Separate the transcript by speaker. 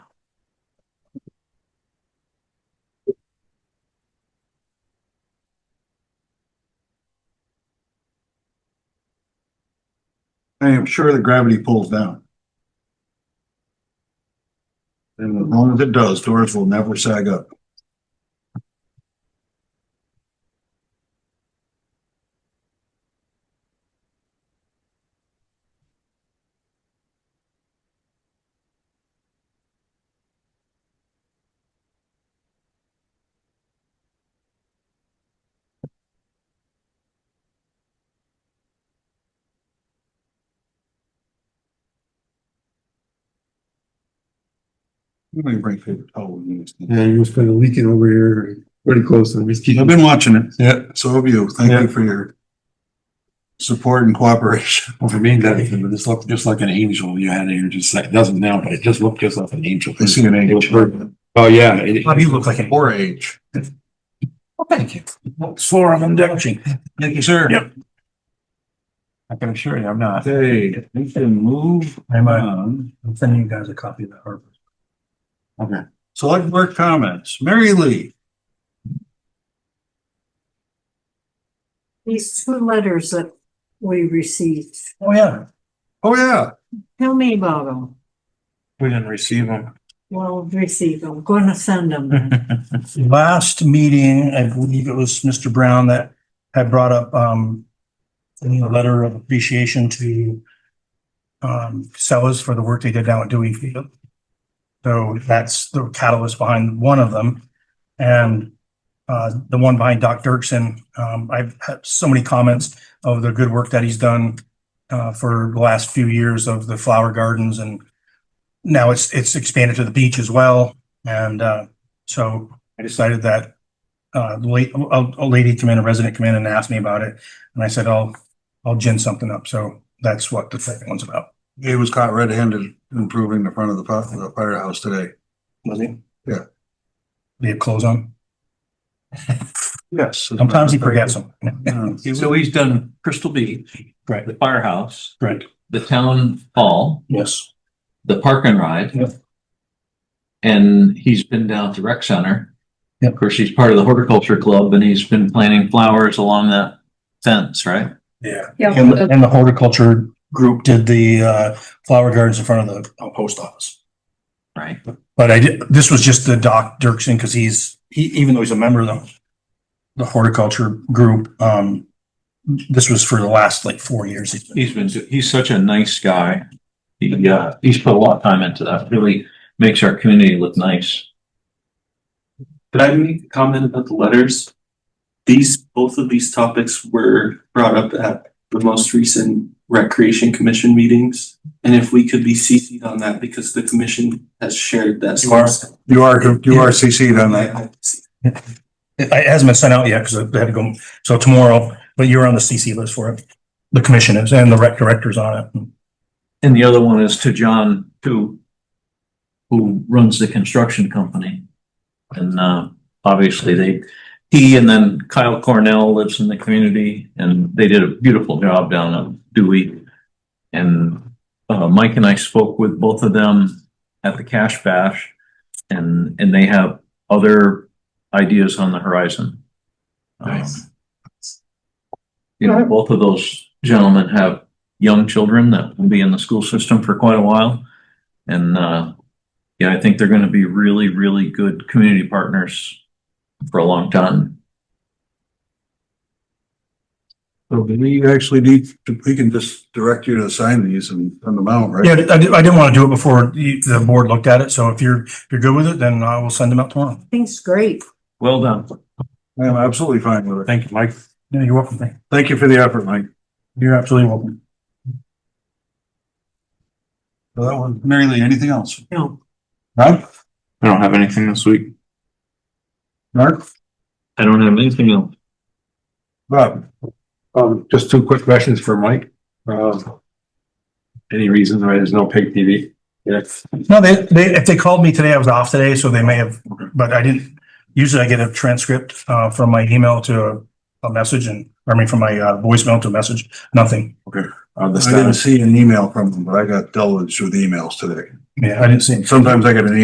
Speaker 1: I am sure the gravity pulls down. And as long as it does, doors will never sag up. Let me bring paper towel and use it.
Speaker 2: Yeah, you've been leaking over here pretty close and we just keep.
Speaker 1: I've been watching it.
Speaker 2: Yeah.
Speaker 1: So have you. Thank
Speaker 2: Yeah.
Speaker 1: you for your support and cooperation.
Speaker 3: Well, for me, that this looked just like an angel you had here, just like, doesn't now, but it just looked just like an angel.
Speaker 1: I see an age.
Speaker 3: Oh, yeah. it-
Speaker 4: Bob, you look like an.
Speaker 1: Or age.
Speaker 4: Oh, thank you. Swore I'm indulging.
Speaker 1: Thank you, sir.
Speaker 4: Yep. I can assure you, I'm not.
Speaker 1: Okay, we can move
Speaker 4: I'm, uh,
Speaker 1: on.
Speaker 4: I'm sending you guys a copy of the Harvard.
Speaker 1: Select board comments. Mary Lee.
Speaker 5: These two letters that we received,
Speaker 4: Oh, yeah.
Speaker 1: Oh, yeah.
Speaker 5: tell me about them.
Speaker 4: We didn't receive them.
Speaker 5: Well, received, I'm gonna send them. then.
Speaker 4: Last meeting, I believe it was Mr. Brown that had brought up, um, sending a letter of appreciation to um, Sellers for the work they did down at Dewey Field. So that's the catalyst behind one of them. And, uh, the one behind Doc Dirksen, um, I've had so many comments of the good work that he's done uh, for the last few years of the flower gardens and now it's, it's expanded to the beach as well. And, uh, so I decided that uh, the late, a, a lady come in, a resident come in and asked me about it. And I said, I'll, I'll gin something up. So that's what the second one's about.
Speaker 1: He was caught red-handed improving the front of the fi- the firehouse today.
Speaker 4: Was he?
Speaker 1: Yeah.
Speaker 4: Did he have clothes on?
Speaker 1: Yes.
Speaker 4: Sometimes he forgets them.
Speaker 1: Yeah.
Speaker 6: So he's done Crystal Beach,
Speaker 4: Right,
Speaker 6: the firehouse,
Speaker 4: right.
Speaker 6: the town hall,
Speaker 4: Yes.
Speaker 6: the park and ride.
Speaker 4: Yep.
Speaker 6: And he's been down to rec center.
Speaker 4: Yep.
Speaker 6: Of course, he's part of the horticulture club and he's been planting flowers along that fence, right?
Speaker 4: Yeah.
Speaker 7: Yeah.
Speaker 4: And, the- and the horticulture group did the uh, flower gardens in front of the uh, post office.
Speaker 6: Right.
Speaker 4: But I did, this was just the Doc Dirksen, because he's, he, even though he's a member of the, the horticulture group, um, this was for the last like four years. he's been-
Speaker 6: He's been, he's such a nice guy. He, uh, he's put a lot of time into that. Really makes our community look nice.
Speaker 8: Could I make a comment about the letters? These, both of these topics were brought up at the most recent Recreation Commission meetings. And if we could be CC'd on that because the commission has shared that.
Speaker 4: You are-
Speaker 1: You are, you are CC'd on that.
Speaker 8: I- I-
Speaker 4: It it hasn't been sent out yet, because I had to go, so tomorrow, but you're on the CC list for it. The commission is, and the rec director's on it.
Speaker 6: And the other one is to John, who, who runs the construction company. And, uh, obviously they, he and then Kyle Cornell lives in the community and they did a beautiful job down at Dewey. And, uh, Mike and I spoke with both of them at the Cash Bash and, and they have other ideas on the horizon. Um,
Speaker 3: Nice.
Speaker 6: You know, both of those gentlemen have young children that will be in the school system for quite a while. And, uh, yeah, I think they're going to be really, really good community partners for a long time.
Speaker 1: So do we actually need, to- we can just direct you to sign these and send them out, right?
Speaker 4: Yeah, I didn't, I didn't want to do it before the, the board looked at it, so if you're, if you're good with it, then I will send them out tomorrow.
Speaker 5: Thing's great.
Speaker 6: Well done.
Speaker 1: I'm absolutely fine with it.
Speaker 4: Thank you, Mike. Yeah, you're welcome. Thank you.
Speaker 1: Thank you for the effort, Mike.
Speaker 4: You're absolutely welcome.
Speaker 1: So that one, Mary Lee, anything else?
Speaker 5: No,
Speaker 1: Rob?
Speaker 3: I don't have anything this week.
Speaker 1: Mark?
Speaker 6: I don't have anything else.
Speaker 1: Bob?
Speaker 2: Um, just two quick questions for Mike. Um, any reason why there's no pig TV? Yes.
Speaker 4: No, they, they, if they called me today, I was off today, so they may have, but I didn't, usually I get a transcript, uh, from my email to a- a message and, I mean, from my uh, voicemail to a message, nothing.
Speaker 2: On the
Speaker 1: I didn't
Speaker 2: status.
Speaker 1: see an email from them, but I got dealt with through the emails today.
Speaker 4: Yeah, I didn't see.
Speaker 1: Sometimes I get an